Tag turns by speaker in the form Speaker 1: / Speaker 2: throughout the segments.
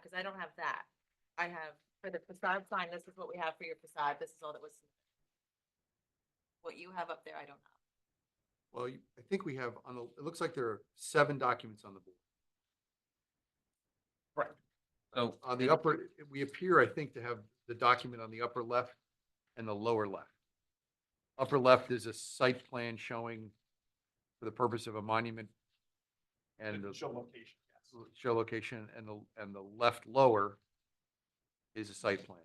Speaker 1: because I don't have that. I have for the facade sign, this is what we have for your facade, this is all that was. What you have up there, I don't know.
Speaker 2: Well, you- I think we have, on the, it looks like there are seven documents on the board.
Speaker 3: So
Speaker 2: On the upper, we appear, I think, to have the document on the upper left and the lower left. Upper left is a site plan showing for the purpose of a monument and the
Speaker 4: Show location, yes.
Speaker 2: show location, and the, and the left lower is a site plan.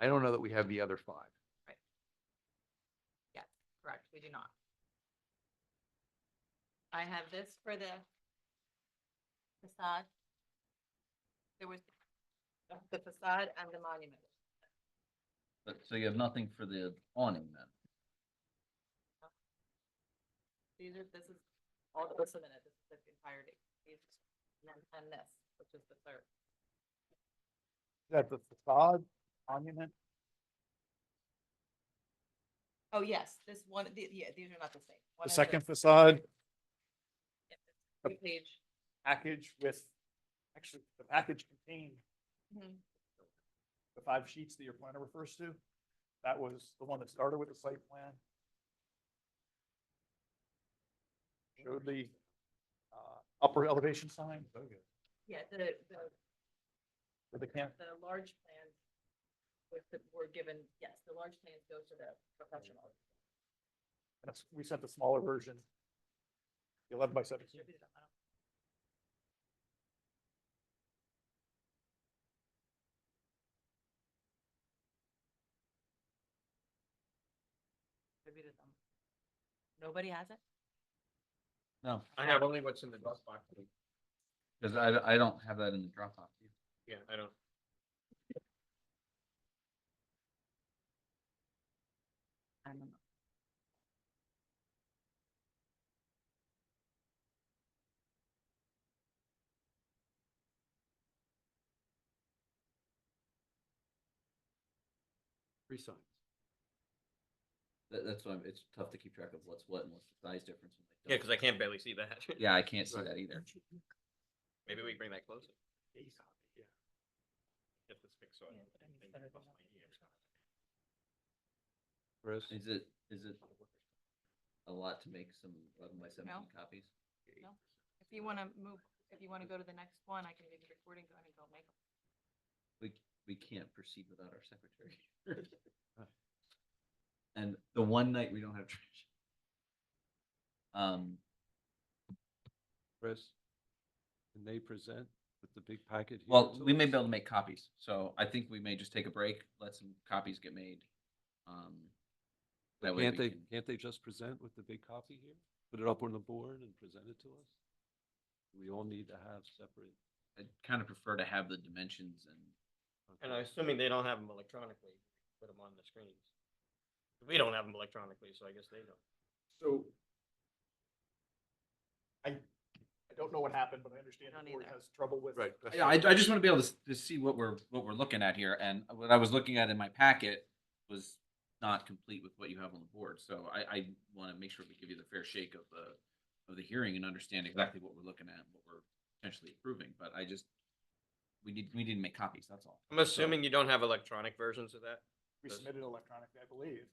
Speaker 2: I don't know that we have the other five.
Speaker 1: Correct, we do not. I have this for the facade. There was the facade and the monument.
Speaker 3: But so you have nothing for the awning then?
Speaker 1: These are, this is all that was submitted, this is the entirety. These- And then- and this, which is the third.
Speaker 4: That the facade monument?
Speaker 1: Oh, yes, this one, the, yeah, these are not the same. One
Speaker 4: The
Speaker 1: is
Speaker 4: second facade
Speaker 1: three Page.
Speaker 4: package with, actually, the package contained
Speaker 1: Mhm.
Speaker 4: the five sheets that your planner refers to. That was the one that started with the site plan. Showed the uh, upper elevation sign
Speaker 1: Yeah, the, the,
Speaker 4: with the camp.
Speaker 1: the large plans with the, were given, yes, the large plans go to the professional.
Speaker 4: That's- We sent the smaller version. the Eleven by seventeen.
Speaker 1: distributed amount. Distributed them. Nobody has it?
Speaker 3: No,
Speaker 5: I have only what's in the Dropbox.
Speaker 3: because I, I don't have that in the Dropbox. either.
Speaker 5: Yeah, I don't.
Speaker 1: I don't know.
Speaker 2: Three signs.
Speaker 3: That, that's why it's tough to keep track of what's what and what's the size difference. and
Speaker 5: Yeah, because I can't barely see that.
Speaker 3: Yeah, I can't see
Speaker 2: Right.
Speaker 3: that either.
Speaker 5: Maybe we bring that closer. Get this fixed so I
Speaker 1: Yeah, but I
Speaker 5: don't
Speaker 1: need
Speaker 5: think
Speaker 1: better
Speaker 5: I
Speaker 1: than
Speaker 5: bust
Speaker 1: that.
Speaker 5: my ears.
Speaker 2: Chris?
Speaker 3: Is it, is it a lot to make some eleven by seventeen
Speaker 1: No.
Speaker 3: copies?
Speaker 1: No. If you want to move, if you want to go to the next one, I can leave the recording going and go make them.
Speaker 3: We, we can't proceed without our secretary. And the one night we don't have trash. Um,
Speaker 6: Chris, can they present with the big packet? here
Speaker 3: Well,
Speaker 6: to
Speaker 3: we may
Speaker 6: us?
Speaker 3: be able to make copies, so I think we may just take a break, let some copies get made. Um, that way
Speaker 6: Can't
Speaker 3: we
Speaker 6: they,
Speaker 3: can-
Speaker 6: can't they just present with the big copy here? Put it up on the board and present it to us? We all need to have separate.
Speaker 3: I kind of prefer to have the dimensions and,
Speaker 5: And I'm assuming they don't have them electronically, put them on the screens. We don't have them electronically, so I guess they don't.
Speaker 4: So. I, I don't know what happened, but I understand
Speaker 1: Don't
Speaker 4: the board
Speaker 1: either.
Speaker 4: has trouble with.
Speaker 2: Right, that's
Speaker 3: yeah, I, I just want to be able to, s- to see what we're, what we're looking at here, and what I was looking at in my packet was not complete with what you have on the board, so I, I want to make sure we give you the fair shake of the, of the hearing and understand exactly what we're looking at, and what we're potentially approving, but I just, we need, we need to make copies, that's all.
Speaker 5: I'm assuming you don't have electronic versions of that?
Speaker 4: We submitted electronically, I believe.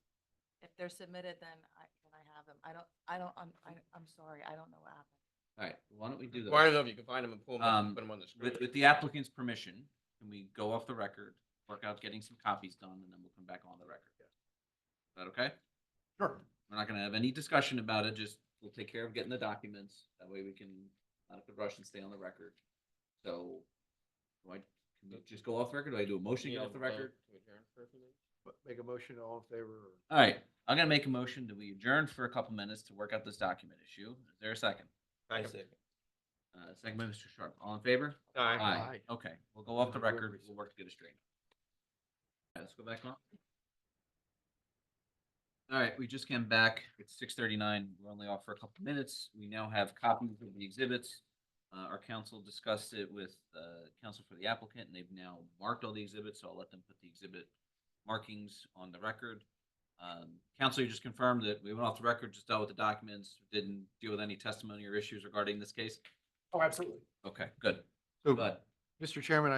Speaker 1: If they're submitted, then I, then I have them. I don't, I don't, I'm, I- I'm sorry, I don't know what happened.
Speaker 3: All right, why don't we do that?
Speaker 5: Well, I don't know if you can find them and pull them up
Speaker 3: Um,
Speaker 5: and put them on the screen.
Speaker 3: With, with the applicant's permission, can we go off the record, work out getting some copies done, and then we'll come back on the record? Is that okay?
Speaker 4: Sure.
Speaker 3: We're not gonna have any discussion about it, just we'll take care of getting the documents, that way we can, not have to rush and stay on the record. So, do I, can we just go off the record, do I do a motion to
Speaker 5: You
Speaker 3: go
Speaker 5: need
Speaker 3: off the
Speaker 5: to vote
Speaker 3: record?
Speaker 5: to adjourn for a few minutes?
Speaker 2: Make a motion, all in favor? or-
Speaker 3: All right, I'm gonna make a motion that we adjourn for a couple minutes to work out this document issue, is there a second?
Speaker 5: I
Speaker 3: Second.
Speaker 5: see.
Speaker 3: Uh, second by Mr. Sharp, all in favor?
Speaker 5: Aye.
Speaker 3: Aye. Okay, we'll go off the record. We'll work to get it straight. All right, let's go back on. All right, we just came back. It's six thirty-nine. We're only off for a couple minutes. We now have copies of the exhibits. Uh, our council discussed it with, uh, counsel for the applicant and they've now marked all the exhibits, so I'll let them put the exhibit markings on the record. Um, council, you just confirmed that we went off the record, just dealt with the documents, didn't deal with any testimony or issues regarding this case?
Speaker 4: Oh, absolutely.
Speaker 3: Okay, good.
Speaker 2: So,
Speaker 3: But
Speaker 2: Mr. Chairman, I